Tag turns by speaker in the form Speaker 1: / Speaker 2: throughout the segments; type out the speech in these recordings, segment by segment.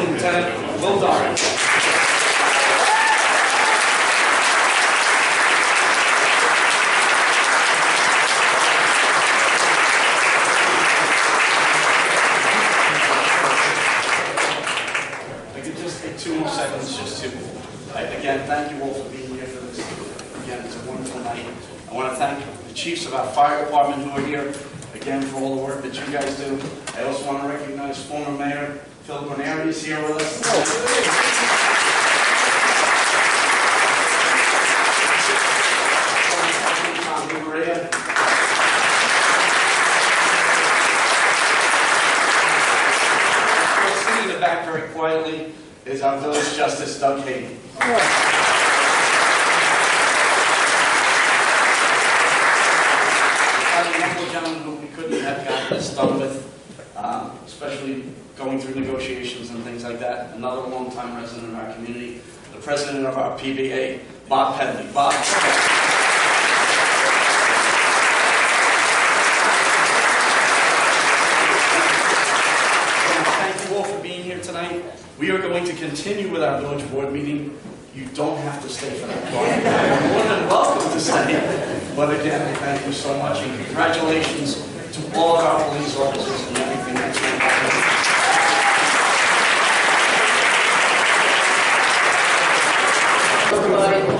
Speaker 1: Lieutenant Will Doran. I could just take two more seconds just to, I- again, thank you all for being here for this. Again, it's a wonderful night. I want to thank the chiefs of our fire department who are here, again, for all the work that you guys do. I also want to recognize former mayor Phil Bonary is here with us. Tom Di Maria. Well, Sitting in the back very quietly is our village justice Doug Hayden. Probably one more gentleman who we couldn't have gotten this done with, um, especially going through negotiations and things like that. Another longtime resident of our community, the president of our PBA, Bob Pedley. Bob. And Thank you all for being here tonight. We are going to continue with our village board meeting. You don't have to stay for that part. You're more than welcome to stay. But again, I thank you so much and congratulations to all of our police officers and everything that's going on.
Speaker 2: Voting. I'm going to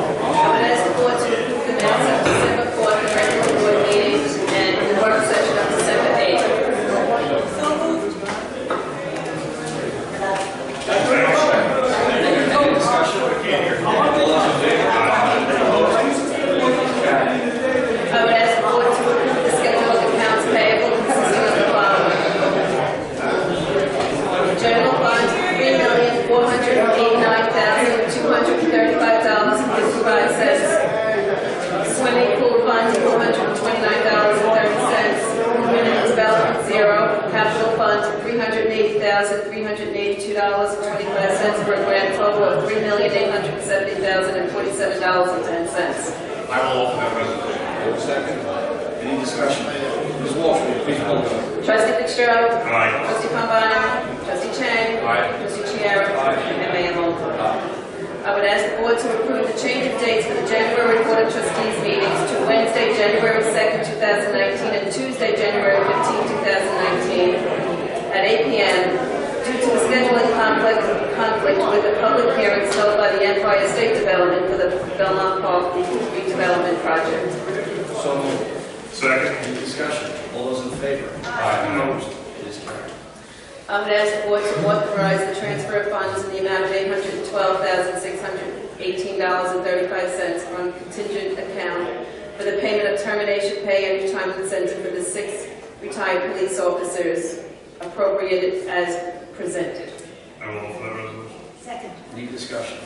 Speaker 2: ask the board to approve the minutes of December 4th, the regular board meeting, and the work session on December 8th.
Speaker 1: Any discussion?
Speaker 2: I would ask the board to approve the schedule of accounts payable consisting of the following. General fund, $3,489,235.55. Swimming pool fund, $429.30. Community development, zero. Capital fund, $380,382.25 for a grand total of $3,870,047.10.
Speaker 3: I will offer that resolution.
Speaker 1: Second. Any discussion? Ms. Walsh, please call the roll.
Speaker 2: Trustee Fitzgerald.
Speaker 3: Aye.
Speaker 2: Trustee Pombana. Trustee Chang.
Speaker 3: Aye.
Speaker 2: Trustee Chiara. And Mayor Longfellow. I would ask the board to approve the change of dates for the January Board of Trustees meetings to Wednesday, January 2nd, 2019, and Tuesday, January 15th, 2019, at 8 p.m. due to the scheduling conflict conflict with the public hearings held by the Empire State Development for the Belmont Park redevelopment project.
Speaker 1: So moved.
Speaker 3: Second.
Speaker 1: Any discussion? All those in favor? Opposed? It is carried.
Speaker 2: I would ask the board to authorize the transfer of funds in the amount of $812,618.35 from contingent account for the payment of termination pay and retirement incentive for the six retired police officers appropriated as presented.
Speaker 3: I will offer that resolution.
Speaker 1: Any discussion?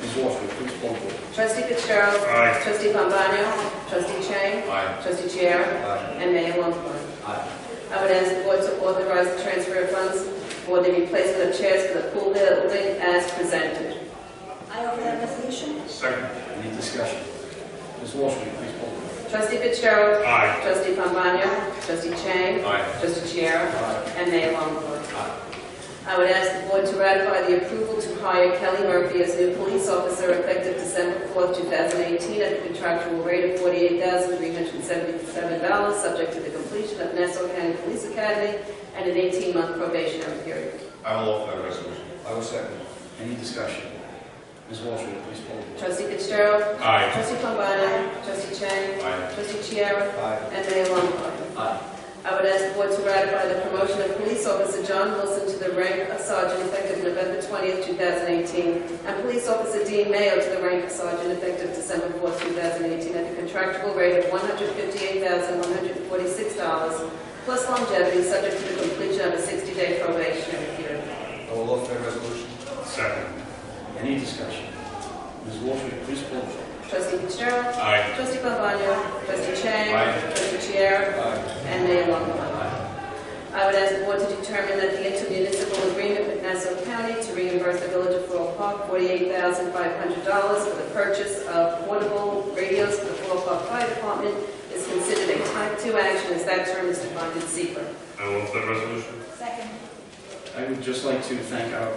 Speaker 1: Ms. Walsh, please call the roll.
Speaker 2: Trustee Fitzgerald.
Speaker 3: Aye.
Speaker 2: Trustee Pombana. Trustee Chang.
Speaker 3: Aye.
Speaker 2: Trustee Chiara.
Speaker 1: Aye.
Speaker 2: And Mayor Longfellow.
Speaker 1: Aye.
Speaker 2: I would ask the board to authorize the transfer of funds for the replacement of chairs for the pool building as presented.
Speaker 4: I offer that resolution.
Speaker 3: Second.
Speaker 1: Any discussion? Ms. Walsh, please call the roll.
Speaker 2: Trustee Fitzgerald.
Speaker 3: Aye.
Speaker 2: Trustee Pombana, trustee Chang.
Speaker 3: Aye.
Speaker 2: Trustee Chiara.
Speaker 1: Aye.
Speaker 2: And Mayor Longfellow. I would ask the board to ratify the approval to hire Kelly Murphy as new police officer effective December 4th, 2018, at the contractual rate of $48,377, subject to the completion of Nassau County Police Academy and an 18-month probationary period.
Speaker 3: I will offer that resolution.
Speaker 1: I will second. Any discussion? Ms. Walsh, will you please poll the board?
Speaker 2: Trustee Fitzgerald.
Speaker 3: Aye.
Speaker 2: Trustee Pombana, trustee Chang.
Speaker 3: Aye.
Speaker 2: Trustee Chiara.
Speaker 1: Aye.
Speaker 2: And Mayor Longfellow.
Speaker 1: Aye.
Speaker 2: I would ask the board to ratify the promotion of police officer John Wilson to the rank of sergeant effective November 20th, 2018, and police officer Dean Mayo to the rank of sergeant effective December 4th, 2018, at a contractual rate of $158,146 plus longevity, subject to the completion of a 60-day probationary period.
Speaker 1: I will offer that resolution.
Speaker 3: Second.
Speaker 1: Any discussion? Ms. Walsh, will you please poll the board?
Speaker 2: Trustee Fitzgerald.
Speaker 3: Aye.
Speaker 2: Trustee Pambana. Trustee Chang.
Speaker 3: Aye.
Speaker 2: Trustee Chiara.
Speaker 1: Aye.
Speaker 2: And Mayor Longfellow. I would ask the board to determine that the intermunicipal agreement with Nassau County to reimburse the village of Floral Park $48,500 for the purchase of portable radios for the Floral Park Fire Department is considered a type 2 action as that term is defined in secret.
Speaker 3: I will offer that resolution.
Speaker 4: Second.
Speaker 1: I would just like to thank our